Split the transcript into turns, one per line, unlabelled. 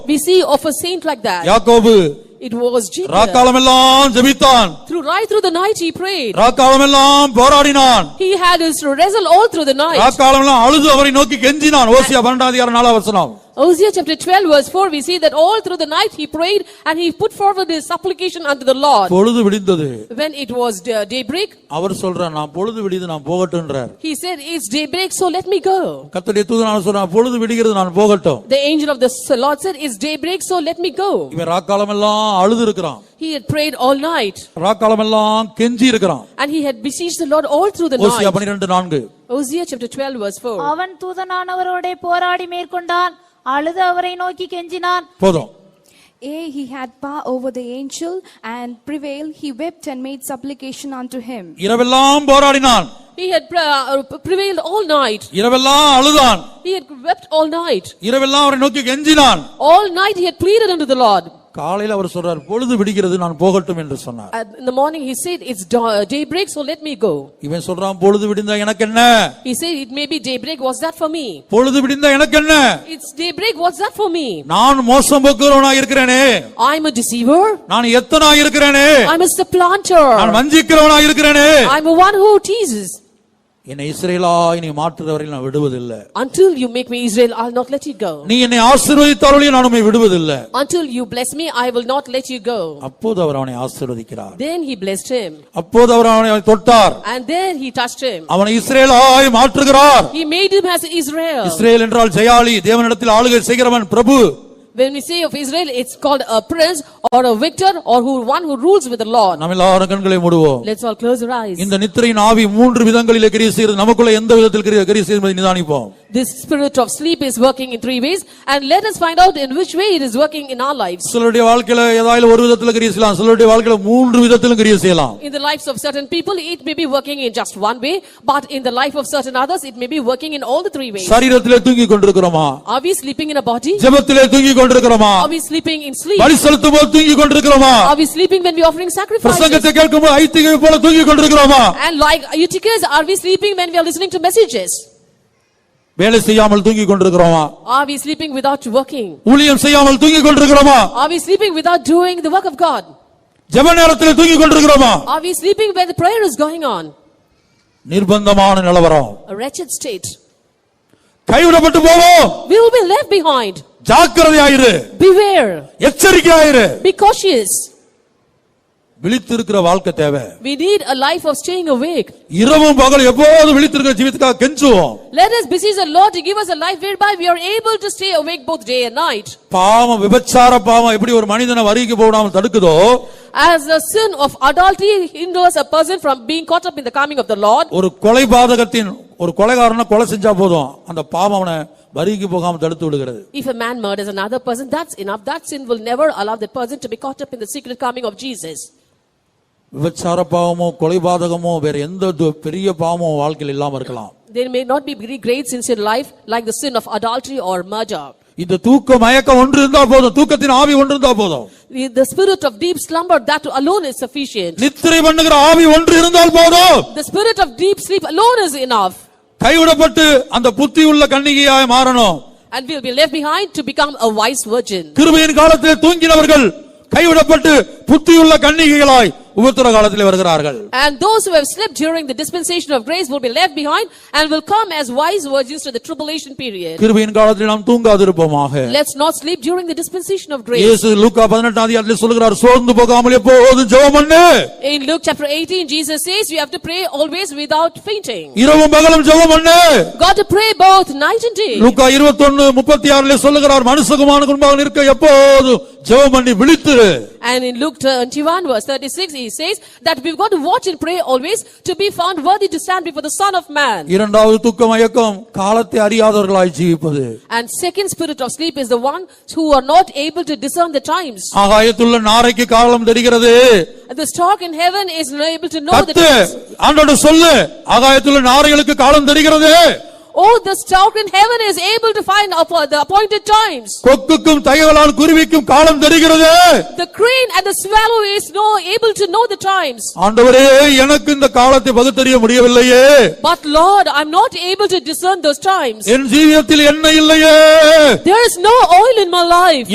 We see of a saint like that.
யாக்கோபு
It was Jesus.
ராக்காலமெல்லாம் ஜெபித்தான்
Through right through the night he prayed.
ராக்காலமெல்லாம் போராடினான்
He had his wrestle all through the night.
ராக்காலமெல்லாம் அழுது அவரை நோக்கி கெஞ்சினான் ஓசியா பன்னெண்டாம் அதிகாரம் நாலாம் வசனம்
Hosea chapter 12 verse 4 we see that all through the night he prayed and he put forward his supplication unto the Lord.
பொழுது விடிந்தது
When it was day- daybreak,
அவர் சொல்றார் நான் பொழுது விடிது நான் போகட்டும்ன்றார்
he said, it's daybreak so let me go.
கர்த்தருடைய தூதனான சொல்றான் பொழுது விடுகிறது நான் போகட்டும்
The angel of the Lord said, it's daybreak so let me go.
இவன் ராக்காலமெல்லாம் அழுது இருக்கிறான்
He had prayed all night
ராக்காலமெல்லாம் கெஞ்சி இருக்கிறான்
and he had beseeched the Lord all through the
Hosea
night.
பன்னிரெண்டு நான்கு
Hosea chapter 12 verse 4.
அவன் தூதனானவரோட போராடி மேற்கொண்டான் அழுது அவரை நோக்கி கெஞ்சினான்
போதும்
A, he had power over the angel and prevailed. He wept and made supplication unto him.
இரவெல்லாம் போராடினான்
He had pre- uh, prevailed all night.
இரவெல்லாம் அழுதான்
He had wept all night.
இரவெல்லாம் அவரை நோக்கி கெஞ்சினான்
All night he had pleaded unto the Lord.
காலையில் அவர் சொல்றார் பொழுது விடுகிறது நான் போகட்டும் என்று சொன்னார்
And in the morning he said, it's da- uh, daybreak so let me go.
இவன் சொல்றான் பொழுது விடிந்தா எனக்கு என்ன
He said, it may be daybreak, what's that for me?
பொழுது விடிந்தா எனக்கு என்ன
It's daybreak, what's that for me?
நான் மோசம் போக்குறவனா இருக்கிறேனே
I'm a deceiver.
நான் எத்தனா இருக்கிறேனே
I'm a
நான்
supplanter.
வஞ்சிக்கிறவனா இருக்கிறேனே
I'm a one who teases.
என்னை இஸ்ரேலாய் நீ மாற்றுறவரையில் நான் விடுவதில்லை
Until you make me Israel, I'll not let you go.
நீ என்னை ஆசீர்வதித்தாலும் நான் உம்மை விடுவதில்லை
Until you bless me, I will not let you go.
அப்போது அவர் அவனை ஆசீர்வதிக்கிறார்
Then he blessed him.
அப்போது அவர் அவனை தொட்டார்
And then he touched him.
அவனை இஸ்ரேலாய் மாற்றுகிறார்
He made him as Israel.
Israel என்றால் ஜெயாலி தேவனிடத்தில் ஆளுகை செய்கிறவன் பிரபு
When we say of Israel, it's called a prince or a victor or who one who rules with the Lord.
நம்ம எல்லாரும் கண்களை மூடுவோம்
Let's all close our eyes.
இந்த நித்திரையின் ஆவி மூன்று விதங்களிலே கிரியை செய்கிறது நமக்குள்ள எந்த விதத்தில் கிரியை கிரியை செய்யும் என்பதை நிதானிப்போம்
This spirit of sleep is working in three ways, and let us find out in which way it is working in our lives.
சிலருடைய வாழ்க்கையில ஏதாவது ஒரு விதத்தில் கிரியை செய்யலாம் சிலருடைய வாழ்க்கையில மூன்று விதத்திலும் கிரியை செய்யலாம்
In the lives of certain people, it may be working in just one way, but in the life of certain others, it may be working in all the three ways.
சரீரத்திலே தூங்கி கொண்டிருக்கிறோமா
Are we sleeping in a body?
ஜெபத்திலே தூங்கி கொண்டிருக்கிறோமா
Are we sleeping in sleep?
பலி செலுத்தும் போது தூங்கி கொண்டிருக்கிறோமா
Are we sleeping when we're offering sacrifices?
பிரசங்கத்தை கேட்கும் போது ஐத்திகை போல தூங்கி கொண்டிருக்கிறோமா
And like Eutychus, are we sleeping when we are listening to messages?
வேலை செய்யாமல் தூங்கி கொண்டிருக்கிறோமா
Are we sleeping without working?
ஊழியம் செய்யாமல் தூங்கி கொண்டிருக்கிறோமா
Are we sleeping without doing the work of God?
ஜெப நேரத்தில் தூங்கி கொண்டிருக்கிறோமா
Are we sleeping where the prayer is going on?
நிர்பந்தமான நிலவரம்
A wretched state.
கைவிடப்பட்டு போவோம்
We will be left behind.
ஜாக்கிரதையாயிரு
Beware.
எச்சரிக்கையாயிரு
Be cautious.
விழித்திருக்கிற வாழ்க்கை தேவை
We need a life of staying awake.
இரவும் பகல் எப்போது விழித்திருக்கிற ஜீவித்துக்காக கெஞ்சுவோம்
Let us beseech the Lord to give us a life whereby we are able to stay awake both day and night.
பாவம் விபச்சார பாவம் எப்படி ஒரு மனிதனை வரிக்கு போடாமல் தடுக்குதோ
As the sin of adultery hinders a person from being caught up in the coming of the Lord,
ஒரு கொலை பாதகத்தின் ஒரு கொலைகாரனை கொலை செஞ்சா போதும் அந்த பாவம் அவனை வரிக்கு போகாமல் தடுத்து விடுகிறது
if a man murders another person, that's enough. That sin will never allow that person to be caught up in the secret coming of Jesus.
விபச்சார பாவமோ கொலை பாதகமோ வேற எந்த து- பெரிய பாவமோ வாழ்க்கையில் இல்லாம இருக்கலாம்
There may not be very great sins in life like the sin of adultery or murder.
இந்த தூக்க மயக்கம் ஒன்று இருந்தா போதும் தூக்கத்தின் ஆவி ஒன்று இருந்தா போதும்
The the spirit of deep slumber, that alone is sufficient.
நித்திரை பண்ணுகிற ஆவி ஒன்று இருந்தால் போதும்
The spirit of deep sleep alone is enough.
கைவிடப்பட்டு அந்த புத்தி உள்ள கண்ணிகையாய் மாறணும்
And we'll be left behind to become a wise virgin.
கிருபையின் காலத்திலே தூங்கினவர்கள் கைவிடப்பட்டு புத்தியுள்ள கன்னிகைகளாய் உபத்திர காலத்திலே வருகிறார்கள்
And those who have slept during the dispensation of grace will be left behind and will come as wise virgins to the tribulation period.
கிருபையின் காலத்தில் நாம் தூங்காதிருப்போமாக
Let's not sleep during the dispensation of grace.
இயேசு லூக்கா பதினெட்டாம் அதிகாரத்தில் சொல்கிறார் சோர்ந்து போகாமல் எப்போதும் ஜெபம் பண்ணு
In Luke chapter 18, Jesus says you have to pray always without fainting.
இரவும் பகலும் ஜெபம் பண்ணு
Got to pray both night and day.
லூக்கா 21 முப்பத்தி ஆறுல சொல்லுகிறார் மனுஷகுமாரனுக்கு முன்பாக இருக்க எப்போதும் ஜெபம் பண்ணி விழித்திரு
And in Luke 21 verse 36, he says that we've got to watch and pray always to be found worthy to stand before the Son of Man.
இரண்டாவது தூக்க மயக்கம் காலத்தை அறியாதவர்களாய் ஜீவிப்பது
And second spirit of sleep is the one who are not able to discern the times.
ஆகாயத்துள்ள நாரைக்கு காலம் தெரிகிறது
The stock in heaven is not able to know the
கத்து
times.
ஆண்டோட சொல்லு ஆகாயத்துல நாரைகளுக்கு காலம் தெரிகிறது
Oh, the stock in heaven is able to find up the appointed times.
கொக்குக்கும் தகவலால் குருவிக்கும் காலம் தெரிகிறது
The crane and the swallow is no able to know the times.
ஆண்டவரே எனக்கு இந்த காலத்தை பகுத்தறிய முடியவில்லையே
But Lord, I'm not able to discern those times.
என் ஜீவியத்தில் என்ன இல்லையே
There is no oil in my life.